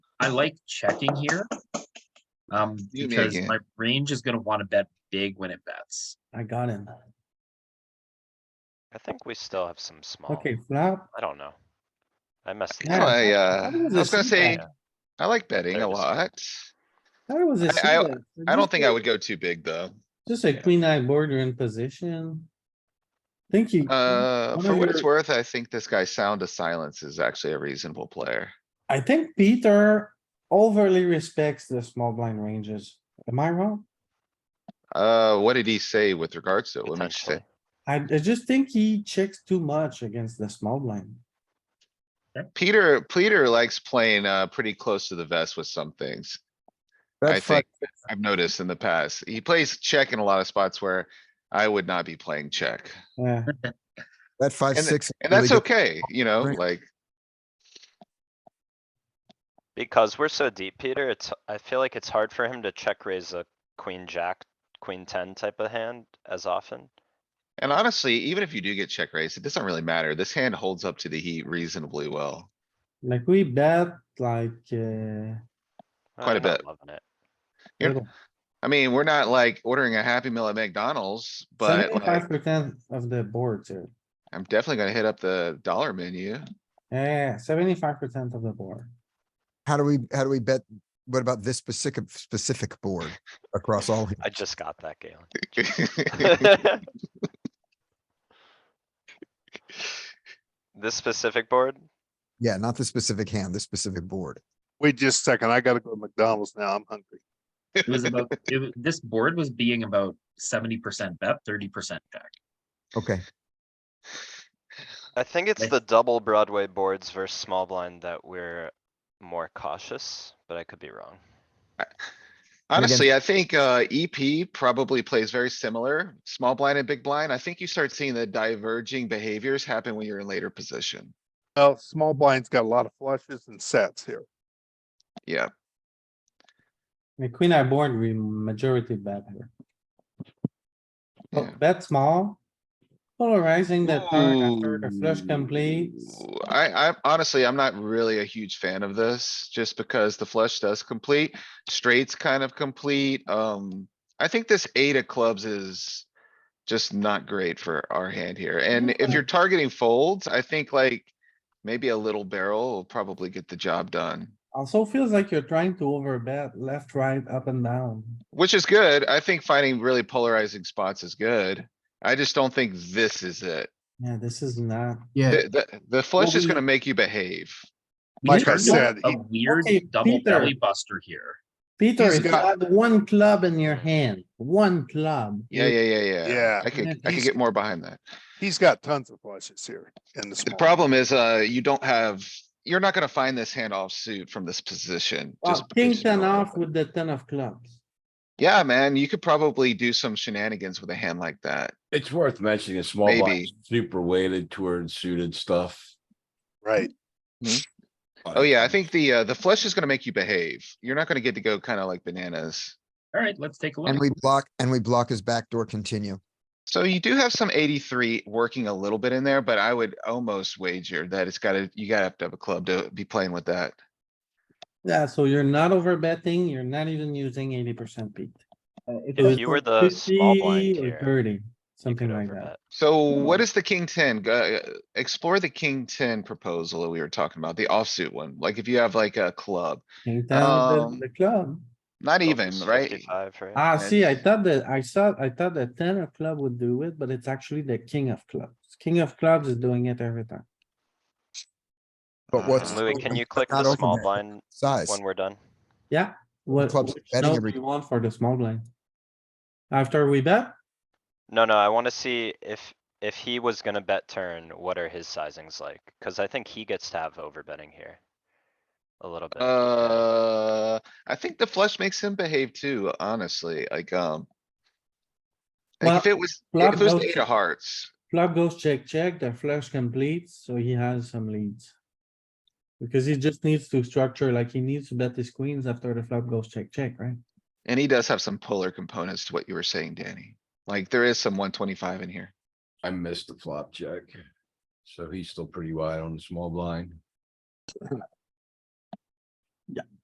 I like checking here. Um, You make because it. my range is gonna wanna bet big when it bets. I got him. I think we still have some small. Okay, flop. I don't know. I messed. it Yeah. up. I, I uh, think it was I a was gonna C say, bet. I like betting Fair a to say. lot. That was a. I- I- suited. I don't think I would go too big, though. Just a queen eye board, you're in position. Thank you. Uh, Mm-hmm. One for of what it's your- worth, I think this guy Sound of Silence is actually a reasonable player. I think Peter overly respects the small blind ranges. Am I wrong? Uh, what did he say with regards to it? What did he Potentially. say? I, I just think he checks too much against the small blind. Peter, Peter likes playing, uh, pretty close to the vest with some things. I That's like, think I've noticed in the past. He plays check in a lot of spots where I would not be playing check. Yeah, that five, and- six. And really that's good- okay, you know, Right. like, Because we're so deep, Peter, it's, I feel like it's hard for him to check raise a queen, jack, queen ten type of hand as often. and honestly, even if you do get check raised, it doesn't really matter. This hand holds up to the heat reasonably well. like we bet like, uh. Uh, Quite a I'm not bit. Loving it. You're- little. I mean, we're not like ordering a Happy Meal at McDonald's, but like, Seventy-five percent of the boards here. I'm definitely gonna hit up the dollar menu. Yeah, seventy-five percent of the board. How do we, how do we bet? What about this specific, specific board across all? I just got that, Galen. This specific board? Yeah, not the specific hand, the specific board. Wait just a second. I gotta go to McDonald's now. I'm hungry. It was about, it, wa- this board was being about seventy percent bet, thirty percent check. Okay, I think it's Like- the double Broadway boards versus small blind that we're more cautious, but I could be wrong. again- Honestly, I think, uh, EP probably plays very similar, small blind and big blind. I think you start seeing the diverging behaviors happen when you're in later position. Well, small blind's got a lot of flushes and sets here. Yeah, The queen I board, we majority bet here. yeah. Bet small. Polarizing the turn after the flush Ooh, completes. I, I honestly, I'm not really a huge fan of this, just because the flush does complete, straights kind of complete, um. I think this eight of clubs is just not great for our hand here, and if you're targeting folds, I think like. Maybe a little barrel will probably get the job done, Also feels like you're trying to overbet left, right, up and down. which is good. I think finding really polarizing spots is good. I just don't think this is it. Yeah, this is not. The, the- the flush is we- gonna make you behave. We Like turned I up said, A he- weird Okay, double Peter. belly buster here. Peter, He's if you got- had one club in your hand, one club. Yeah, yeah, yeah, yeah. Yeah. I could, I could He's- get more behind that. He's got tons of flushes here in the The small. problem is, uh, you don't have, you're not gonna find this handoff suit from this position. Well, just king because you don't ten have off it. with the ten of clubs. Yeah, man, you could probably do some shenanigans with a hand like that. It's worth mentioning a small Maybe. blind, super weighted towards suited stuff. Right. Oh yeah, I think the, uh, the flush is gonna make you behave. You're not gonna get to go kinda like bananas. Alright, let's take a and look. we block, and we block his backdoor continue. So you do have some eighty-three working a little bit in there, but I would almost wager that it's gotta, you gotta have to have a club to be playing with that. Yeah, so you're not overbetting, you're not even using eighty percent beat. Uh, If you were the small blind here, Thirty, you something could like overbet. that. So what Hmm. is the king ten? Go- uh, Explore the king ten proposal that we were talking about, the offsuit one. Like if you have like a club, King ten of Um, the- the club. not Oh, even, it's right? 55, right? Ah, see, I it's- thought that, I saw, I thought the ten of club would do it, but it's actually the king of clubs. King of clubs is doing it every time. But what's? Uh, Louis, can open, you but click not the open small there? blind Size. when we're done? Yeah, what, Clubs which betting note every- do you want for the small blind? After we bet, No, no, I wanna see if, if he was gonna bet turn, what are his sizings like? Cause I think he gets to have overbetting here. A little bit. Uh, I think the flush makes him behave too, honestly, like, um. Well, Like if it was, club if it was goes the eight to- of hearts, flop goes check, check, the flush completes, so he has some leads. Because he just needs to structure, like he needs to bet his queens after the flop goes check, check, right? and he does have some polar components to what you were saying, Danny. Like there is some one twenty-five in here. I missed the flop check. So he's still pretty wide on the small blind.